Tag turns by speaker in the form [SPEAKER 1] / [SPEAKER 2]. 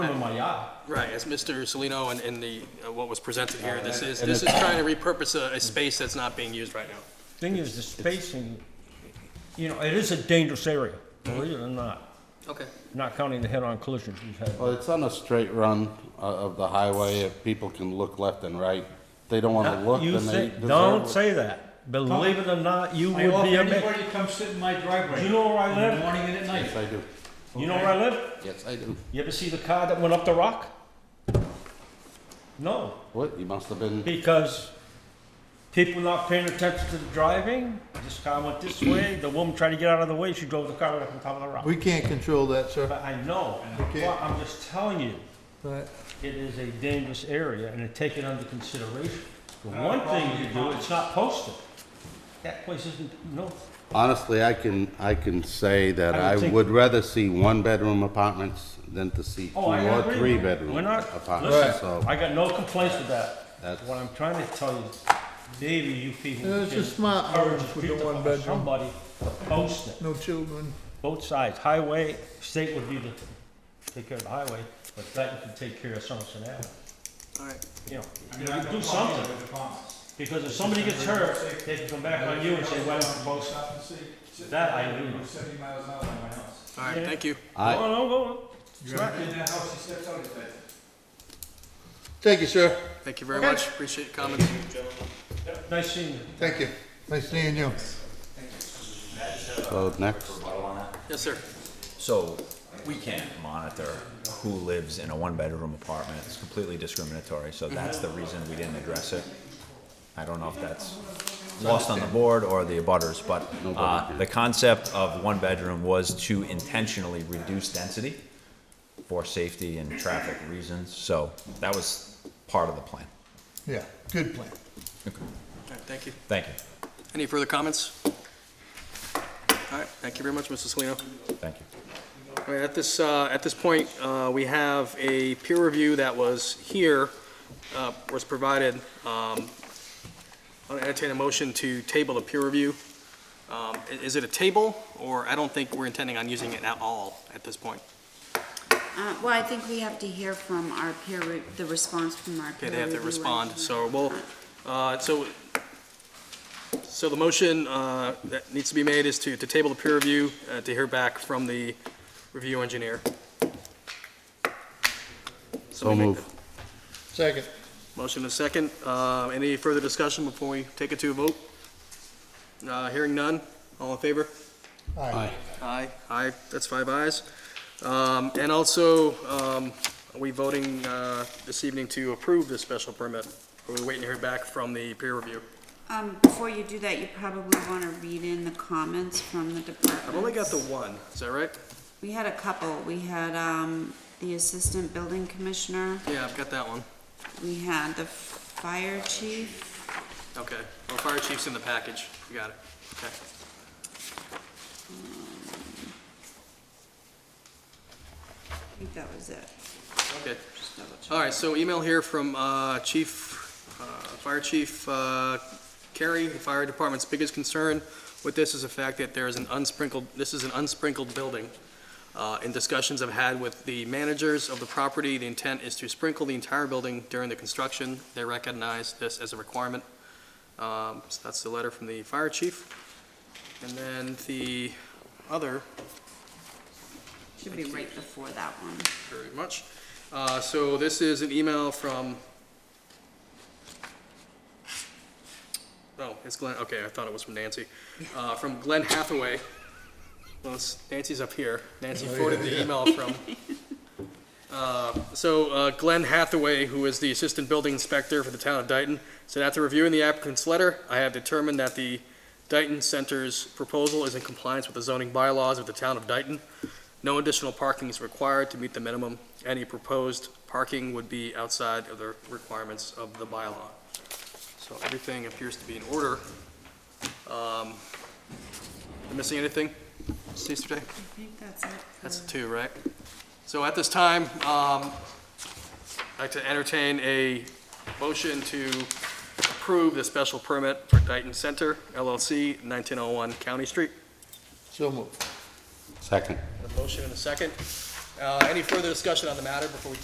[SPEAKER 1] I'm on my yacht.
[SPEAKER 2] Right, as Mr. Salino and, and the, uh, what was presented here, this is,
[SPEAKER 1] and
[SPEAKER 2] this is trying to repurpose a, a space that's not being used right now.
[SPEAKER 1] Thing is, the spacing, you know, it is a dangerous area, believe it or not,
[SPEAKER 2] Okay.
[SPEAKER 1] not counting the head-on collisions we've had.
[SPEAKER 3] Well, it's on a straight run uh, of the highway, if people can look left and right, If they don't wanna look,
[SPEAKER 1] Uh, You
[SPEAKER 3] then they
[SPEAKER 1] say, don't
[SPEAKER 3] deserve it.
[SPEAKER 1] say that. Believe it or not, you
[SPEAKER 4] I
[SPEAKER 1] would
[SPEAKER 4] offer
[SPEAKER 1] be amazed.
[SPEAKER 4] anybody to come sit in my driveway.
[SPEAKER 1] You know where I
[SPEAKER 4] In the
[SPEAKER 1] live?
[SPEAKER 4] morning and at
[SPEAKER 3] Yes,
[SPEAKER 4] night.
[SPEAKER 3] I do,
[SPEAKER 1] You know where I live?
[SPEAKER 3] yes, I do.
[SPEAKER 1] You ever see the car that went up the rock? No,
[SPEAKER 3] What, you must have been,
[SPEAKER 1] because people not paying attention to the driving, this car went this way, the woman tried to get out of the way, she drove the car right up on top of the rock.
[SPEAKER 5] We can't control that, sir.
[SPEAKER 1] But I know,
[SPEAKER 5] Okay.
[SPEAKER 1] Well, I'm just telling you,
[SPEAKER 5] But
[SPEAKER 1] it is a dangerous area and to take it under consideration. The
[SPEAKER 4] Uh,
[SPEAKER 1] one thing
[SPEAKER 4] probably
[SPEAKER 1] you do,
[SPEAKER 4] not.
[SPEAKER 1] it's not posted. That place isn't, no,
[SPEAKER 3] honestly, I can, I can say that
[SPEAKER 1] I would
[SPEAKER 3] I
[SPEAKER 1] think-
[SPEAKER 3] would rather see one-bedroom apartments than to see two
[SPEAKER 1] Oh, I
[SPEAKER 3] or
[SPEAKER 1] agree.
[SPEAKER 3] three-bedroom
[SPEAKER 1] We're not-
[SPEAKER 3] apartments,
[SPEAKER 1] listen,
[SPEAKER 3] so.
[SPEAKER 1] I got no complaints with that.
[SPEAKER 3] That's-
[SPEAKER 1] What I'm trying to tell you, maybe you people
[SPEAKER 5] Yeah, it's
[SPEAKER 1] can
[SPEAKER 5] a smart
[SPEAKER 1] encourage
[SPEAKER 5] house with the
[SPEAKER 1] people
[SPEAKER 5] one
[SPEAKER 1] or
[SPEAKER 5] bedroom.
[SPEAKER 1] somebody to post it.
[SPEAKER 5] no children.
[SPEAKER 1] Both sides, highway, state would be the, take care of the highway, but that you can take care of Somerset Avenue.
[SPEAKER 2] All right.
[SPEAKER 1] You know,
[SPEAKER 4] I
[SPEAKER 1] you
[SPEAKER 4] mean,
[SPEAKER 1] can
[SPEAKER 4] I'm
[SPEAKER 1] do something,
[SPEAKER 4] with the comments.
[SPEAKER 1] because if somebody gets hurt, they can come back on you and say, why don't you post it?
[SPEAKER 4] Stop and see- sit
[SPEAKER 1] That I
[SPEAKER 4] there,
[SPEAKER 1] do.
[SPEAKER 4] you're Seventy miles an hour on my house.
[SPEAKER 2] All right, thank you.
[SPEAKER 3] I,
[SPEAKER 1] No, no, go.
[SPEAKER 4] In that house, he steps out his bed.
[SPEAKER 5] Thank you, sir.
[SPEAKER 2] Thank you very
[SPEAKER 5] Okay.
[SPEAKER 2] much. Appreciate your comments.
[SPEAKER 1] Nice seeing you.
[SPEAKER 5] Thank you. Nice seeing you.
[SPEAKER 3] so next,
[SPEAKER 2] Yes, sir.
[SPEAKER 6] So we can't monitor who lives in a one-bedroom apartment. It's completely discriminatory, so that's the reason we didn't address it. I don't know if that's lost on the board or the abutters, but uh, the concept of one-bedroom was to intentionally reduce density for safety and traffic reasons, so that was part of the plan.
[SPEAKER 5] Yeah, good plan.
[SPEAKER 2] All right, thank you.
[SPEAKER 6] Thank you,
[SPEAKER 2] Any further comments? All right, thank you very much, Mr. Salino.
[SPEAKER 6] thank you.
[SPEAKER 2] All right, at this, uh, at this point, uh, we have a peer review that was here, uh, was provided. Um, I'll entertain a motion to table the peer review. Um, i- Is it a table, or I don't think we're intending on using it at all at this point?
[SPEAKER 7] Uh, Well, I think we have to hear from our peer, re- the response from our
[SPEAKER 2] Okay,
[SPEAKER 7] peer
[SPEAKER 2] they have to
[SPEAKER 7] reviewer.
[SPEAKER 2] respond, so we'll, uh, so, so the motion uh, that needs to be made is to, to table the peer review, uh, to hear back from the review engineer.
[SPEAKER 3] so move.
[SPEAKER 5] Second.
[SPEAKER 2] Motion is second. Uh, Any further discussion before we take it to a vote? Uh, Hearing none, all in favor?
[SPEAKER 5] Aye.
[SPEAKER 2] Aye. Aye, that's five ayes. Um, And also, um, are we voting uh, this evening to approve this special permit? Are we waiting to hear back from the peer review?
[SPEAKER 7] Um, before you do that, you probably wanna read in the comments from the department.
[SPEAKER 2] I've only got the one, is that right?
[SPEAKER 7] We had a couple. We had, um, the assistant building commissioner,
[SPEAKER 2] Yeah, I've got that one.
[SPEAKER 7] we had the fire chief.
[SPEAKER 2] Okay. Well, fire chief's in the package. You got it. Okay.
[SPEAKER 7] I think that was it.
[SPEAKER 2] Okay.
[SPEAKER 7] Just double check.
[SPEAKER 2] All right, so email here from uh, Chief, uh, Fire Chief uh, Carey, the fire department's biggest concern with this is the fact that there is an unsprinkled, this is an unsprinkled building. Uh, In discussions I've had with the managers of the property, the intent is to sprinkle the entire building during the construction. They recognize this as a requirement. Um, So that's the letter from the fire chief. And then the other
[SPEAKER 7] Should be right before that one.
[SPEAKER 2] very much. Uh, So this is an email from, oh, it's Glenn, okay, I thought it was from Nancy. Uh, From Glenn Hathaway. Well, it's- Nancy's up here. Nancy forwarded the email from. Uh, So uh, Glenn Hathaway, who is the Assistant Building Inspector for the town of Dayton, said after reviewing the applicant's letter, I have determined that the Dayton Center's proposal is in compliance with the zoning bylaws of the town of Dayton. No additional parking is required to meet the minimum. Any proposed parking would be outside of the requirements of the bylaw. So everything appears to be in order. Um, am I Missing anything, Mr. Day?
[SPEAKER 7] I think that's it.
[SPEAKER 2] That's two, right? So at this time, um, I'd like to entertain a motion to approve the special permit for Dayton Center LLC, 1901 County Street.
[SPEAKER 5] So moved.
[SPEAKER 3] Second,
[SPEAKER 2] A motion and a second. Uh, any further discussion on the matter before we